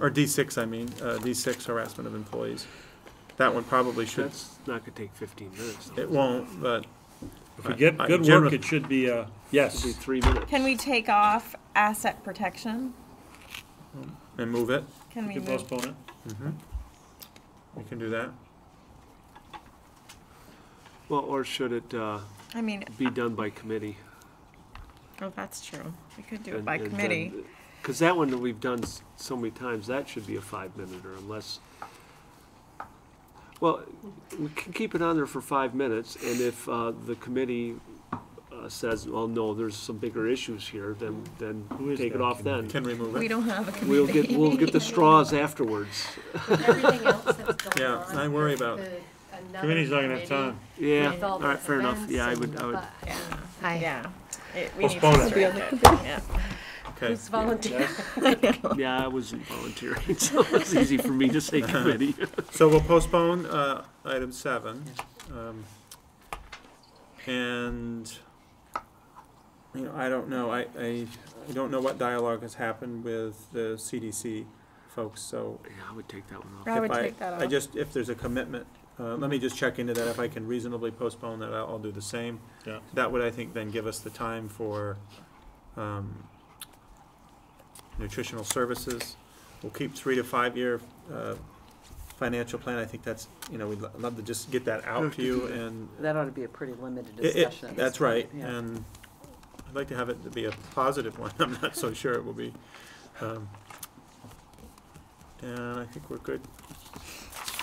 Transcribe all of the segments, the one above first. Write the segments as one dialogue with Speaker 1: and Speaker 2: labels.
Speaker 1: Or D6, I mean, uh, D6 harassment of employees. That one probably should,
Speaker 2: That's not gonna take fifteen minutes. though.
Speaker 1: it won't, but
Speaker 3: If we get
Speaker 1: I- I
Speaker 3: good work,
Speaker 1: generally-
Speaker 3: it should be, uh,
Speaker 2: It'll be
Speaker 3: yes.
Speaker 2: three minutes.
Speaker 4: Can we take off asset protection?
Speaker 1: and move it.
Speaker 4: Can
Speaker 3: We
Speaker 4: we
Speaker 3: can
Speaker 4: move?
Speaker 3: postpone it.
Speaker 1: We can do that.
Speaker 2: Well, or should it, uh,
Speaker 4: I mean,
Speaker 2: be done by committee?
Speaker 4: oh, that's true. We could do it
Speaker 2: And-
Speaker 4: by
Speaker 2: and then-
Speaker 4: committee.
Speaker 2: Cause that one that we've done s- so many times, that should be a five minute or unless. Well, we can keep it on there for five minutes and if, uh, the committee, uh, says, well, no, there's some bigger issues here, then, then
Speaker 3: Who is
Speaker 2: take it
Speaker 3: that
Speaker 2: off then.
Speaker 1: Can we move
Speaker 4: We
Speaker 1: it?
Speaker 4: don't have a committee.
Speaker 2: We'll get, we'll get the straws afterwards.
Speaker 5: everything else that's going
Speaker 1: Yeah,
Speaker 5: on
Speaker 1: I worry
Speaker 5: with
Speaker 1: about-
Speaker 5: the- another
Speaker 3: Committee's not gonna have
Speaker 5: committee
Speaker 3: time.
Speaker 2: Yeah,
Speaker 5: with all
Speaker 2: all
Speaker 5: those
Speaker 2: right, fair enough.
Speaker 5: events
Speaker 2: Yeah, I would,
Speaker 5: and-
Speaker 2: I would,
Speaker 5: but-
Speaker 4: Yeah,
Speaker 5: I-
Speaker 4: yeah. It- we need to
Speaker 3: Postpone it.
Speaker 4: strike it. Yeah.
Speaker 1: Okay.
Speaker 5: Who's volunteering?
Speaker 2: yeah, I wasn't volunteering, so it's easy for me to say committee.
Speaker 1: So we'll postpone uh, item seven. um, And, you know, I don't know, I, I I don't know what dialogue has happened with the CDC folks, so
Speaker 2: Yeah, I would take that one off.
Speaker 4: I would
Speaker 1: if
Speaker 4: take that
Speaker 1: I
Speaker 4: off.
Speaker 1: just, if there's a commitment, uh, let me just check into that. If I can reasonably postpone that, I'll, I'll do the same.
Speaker 3: Yeah.
Speaker 1: That would, I think, then give us the time for, um, nutritional services. We'll keep three to five-year, uh, financial plan. I think that's, you know, we'd lo- love to just get that out to you and.
Speaker 6: That ought to be a pretty limited
Speaker 1: it- it-
Speaker 6: discussion.
Speaker 1: That's right,
Speaker 6: Yeah.
Speaker 1: and I'd like to have it to be a positive one. I'm not so sure it will be. Um, And I think we're good.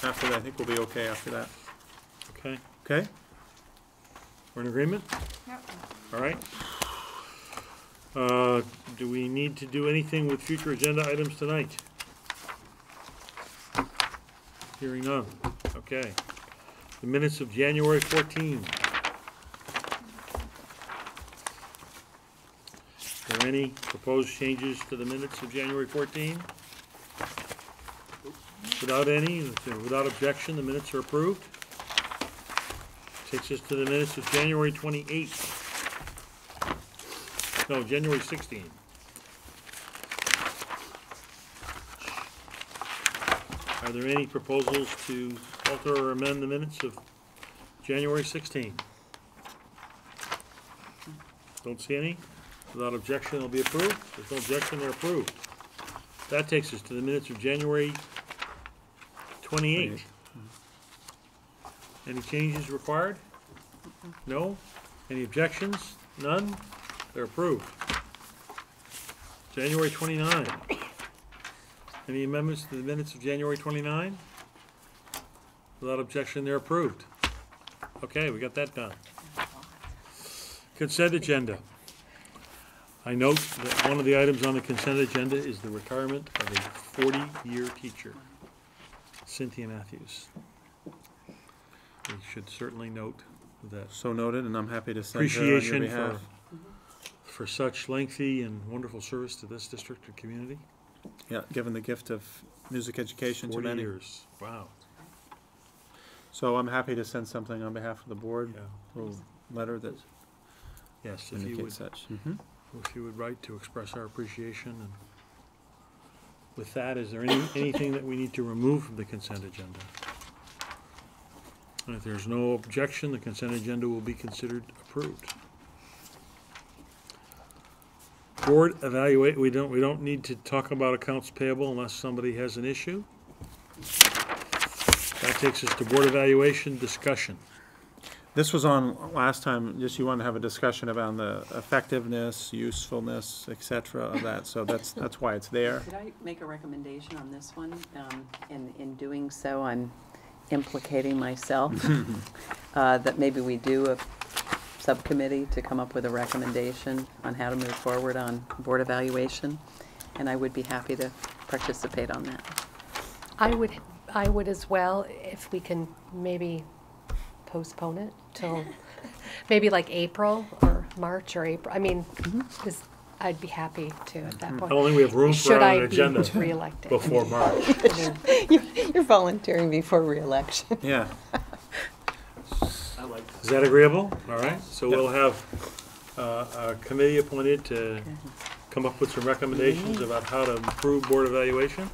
Speaker 1: After that, I think we'll be okay after that.
Speaker 3: Okay,
Speaker 1: Okay,
Speaker 3: we're in agreement? All right. Uh, do we need to do anything with future agenda items tonight? Hearing none, okay. The minutes of January fourteen. Are there any proposed changes to the minutes of January fourteen? Without any, without objection, the minutes are approved. Takes us to the minutes of January twenty-eighth. No, January sixteenth. Are there any proposals to alter or amend the minutes of January sixteenth? Don't see any. Without objection, they'll be approved. There's no objection, they're approved. That takes us to the minutes of January twenty-eighth. Any changes required? No? Any objections? None? They're approved. January 29. Any amendments to the minutes of January 29? Without objection, they're approved. Okay, we got that done. Consent agenda. I note that one of the items on the consent agenda is the retirement of a 40-year teacher, Cynthia Matthews. We should certainly note that
Speaker 1: so noted, and I'm happy to send her on your
Speaker 3: appreciation for,
Speaker 1: behalf.
Speaker 3: for such lengthy and wonderful service to this district and community.
Speaker 1: Yeah, given the gift of music education to
Speaker 3: Forty
Speaker 1: many.
Speaker 3: years, wow,
Speaker 1: So I'm happy to send something on behalf of the board,
Speaker 3: yeah,
Speaker 1: a little letter that
Speaker 3: yes, if you would,
Speaker 1: indicates such. Mhm.
Speaker 3: if you would write to express our appreciation and with that, is there any, anything that we need to remove from the consent agenda? And if there's no objection, the consent agenda will be considered approved. Board evaluate, we don't, we don't need to talk about accounts payable unless somebody has an issue. That takes us to board evaluation discussion.
Speaker 1: This was on last time, just you want to have a discussion about the effectiveness, usefulness, et cetera, of that, so that's, that's why it's there.
Speaker 6: Could I make a recommendation on this one? Um, In, in doing so, I'm implicating myself, uh, that maybe we do a subcommittee to come up with a recommendation on how to move forward on board evaluation, and I would be happy to participate on that.
Speaker 5: I would, I would as well, if we can maybe postpone it till, maybe like April or March or April. I mean, this, I'd be happy to at that
Speaker 3: I
Speaker 5: point.
Speaker 3: Mm-hmm. don't think we have room for
Speaker 5: Should
Speaker 3: an
Speaker 5: I be
Speaker 3: agenda
Speaker 5: reelected?
Speaker 3: before March.
Speaker 5: I mean,
Speaker 6: You're volunteering before reelection.
Speaker 1: Yeah,
Speaker 2: I like
Speaker 3: Is that agreeable? All right, so we'll have uh, a committee appointed to come up with some recommendations about how to improve board evaluation.